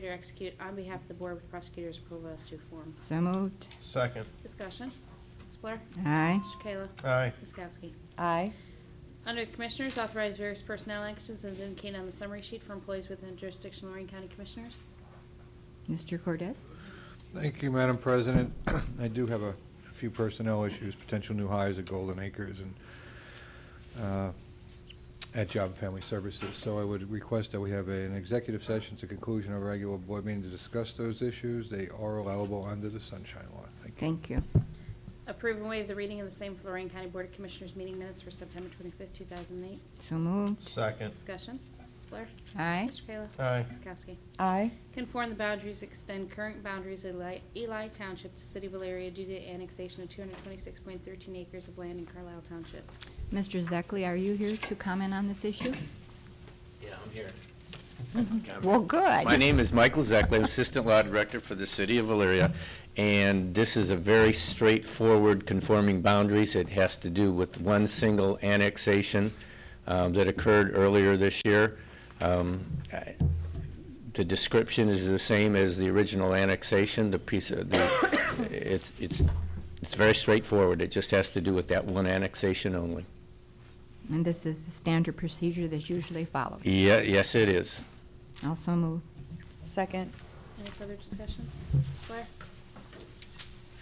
Prosecutor execute on behalf of the board with prosecutor's approval as to form. So moved. Second. Discussion. Ms. Blair? Aye. Mr. Kayla? Aye. Ms. Kowski? aye, Under the Commissioners, authorize various personnel actions as indicated on the summary sheet for employees within jurisdiction of Lorraine County Commissioners. Mr. Cortez? Thank you, Madam President. I do have a few personnel issues, potential new hires at Golden Acres and uh, at Job and Family Services. So I would request that we have an executive session to conclusion of our regular board meeting to discuss those issues. They are allowable under the Sunshine Law. Thank you. Thank you. Approve and waive the reading of the same for Lorraine County Board of Commissioners meeting minutes for September 25th, 2008. So moved. Second. Discussion. Ms. Blair? Aye. Mr. Kayla? Aye. Ms. Kowski? aye, Conform the boundaries, extend current boundaries of Eli- Eli Township to City of Valeria due to annexation of 226.13 acres of land in Carlisle Township. Mr. Zekley, are you here to comment on this issue? Yeah, I'm here. Well, good. My name is Michael Zekley, I'm Assistant Law Director for the City of Valeria, and this is a very straightforward conforming boundaries. It has to do with one single annexation um, that occurred earlier this year. Um, I- The description is the same as the original annexation, the piece, of the, it's, it's, it's very straightforward. It just has to do with that one annexation only. And this is the standard procedure that's usually followed. Yeah, yes, it is. Also moved. second, Any further discussion? Ms. Blair?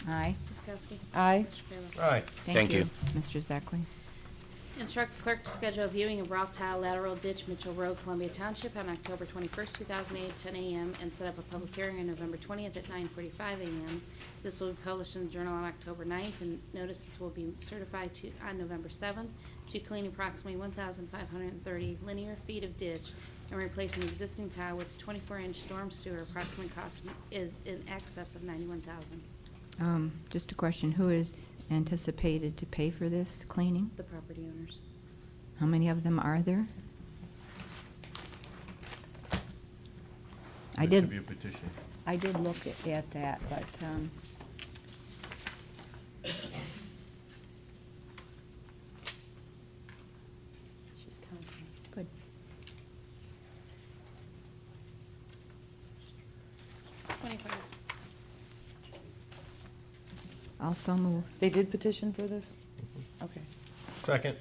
Aye. Ms. Kowski? aye, Mr. Kayla? Aye. Thank you. Mr. Zekley. Instruct the clerk to schedule a viewing of rock tile lateral ditch Mitchell Road, Columbia Township on October 21st, 2008, 10 a.m., and set up a public hearing on November 20th at 9:45 a.m. This will be published in the Journal on October 9th, and notices will be certified to, on November 7th, to clean approximately 1,530 linear feet of ditch and replace an existing tile with a 24-inch storm sewer. Approximate cost is in excess of 91,000. Um, Just a question, who is anticipated to pay for this cleaning? The property owners. How many of them are there? I There should be did, a petition. I did look at- at that, but, um, She's counting. good. Twenty-five. Also moved. they did petition for this? Okay, Second.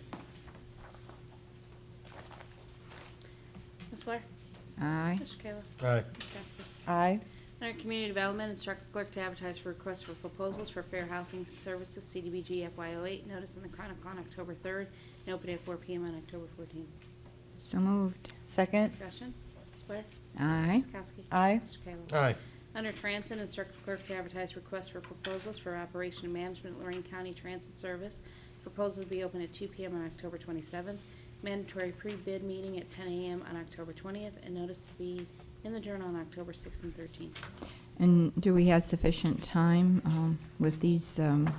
Ms. Blair? Aye. Mr. Kayla? Aye. Ms. Kowski? aye, Under Community Development, instruct the clerk to advertise for requests for proposals for fair housing services, CDBG FY08, notice in the Chronicle on October 3rd, and open at 4 PM on October 14th. So moved. second, Discussion, Ms. Blair? Aye. Ms. Kowski? aye, Mr. Kayla? Aye. Under Transit, instruct the clerk to advertise requests for proposals for operation and management Lorraine County Transit Service. Proposals will be open at 2 PM on October 27th. Mandatory pre-bid meeting at 10 AM on October 20th, and notice to be in the Journal on October 6th and 13th. And do we have sufficient time um, with these um,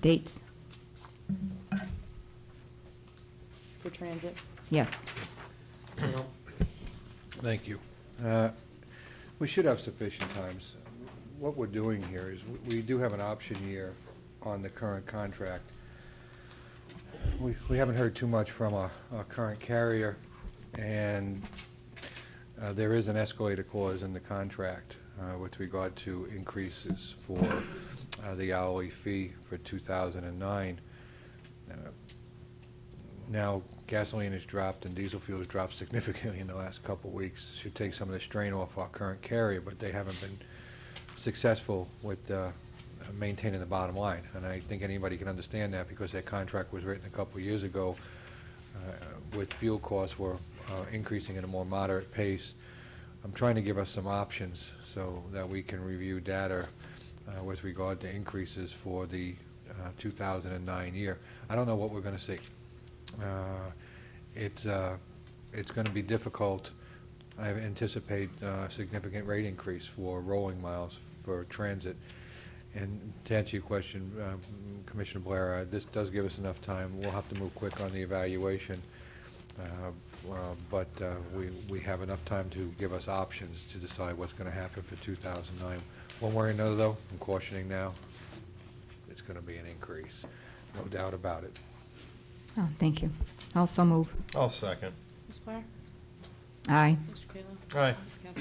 dates? for transit, Yes. Thank you. Uh, We should have sufficient times. What we're doing here is, we- we do have an option year on the current contract. We we haven't heard too much from our our current carrier, and uh, there is an escalator clause in the contract uh, with regard to increases for uh, the hourly fee for 2009. Uh, now gasoline has dropped and diesel fuel has dropped significantly in the last couple of weeks. Should take some of the strain off our current carrier, but they haven't been successful with uh, maintaining the bottom line. And I think anybody can understand that because their contract was written a couple of years ago uh, with fuel costs were uh, increasing at a more moderate pace. I'm trying to give us some options so that we can review data uh, with regard to increases for the uh, 2009 year. I don't know what we're going to see. Uh, It's, uh, it's going to be difficult. I anticipate uh, significant rate increase for rolling miles for transit. And to answer your question, uh, Commissioner Blair, uh, this does give us enough time. We'll have to move quick on the evaluation, uh, uh, but uh, we we have enough time to give us options to decide what's going to happen for 2009. One way or another, though, I'm cautioning now, it's going to be an increase, no doubt about it. Oh, thank you. Also move. I'll second. Ms. Blair? Aye. Mr. Kayla? Aye. Ms. Kowski?